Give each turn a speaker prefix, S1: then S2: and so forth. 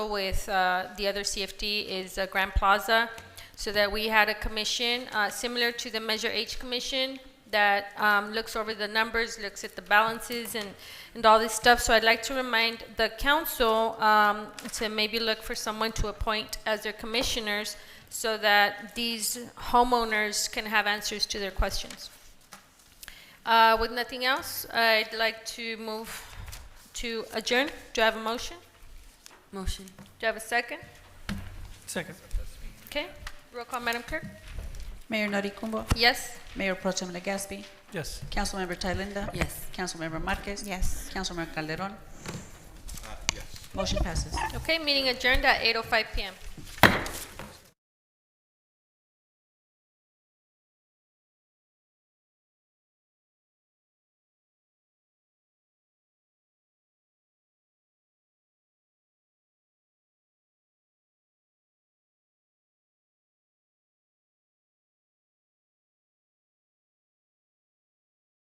S1: with uh, the other CFD is uh, Grand Plaza, so that we had a commission, uh, similar to the Measure H Commission, that um, looks over the numbers, looks at the balances and, and all this stuff. So I'd like to remind the council um, to maybe look for someone to appoint as their commissioners so that these homeowners can have answers to their questions. Uh, With nothing else, I'd like to move to adjourn. Do I have a motion?
S2: Motion.
S1: Do I have a second?
S3: Second.
S1: Okay, roll call, Madam Clerk.
S4: Mayor Noricumbo,
S1: Yes?
S4: Mayor Pro Tem Legaspi,
S3: Yes.
S4: Councilmember Thailenda.
S2: Yes.
S4: Councilmember Marquez. Yes. Councilmember Calderon. Yes. Motion passes.
S1: Okay, meeting adjourned at 8:05 PM.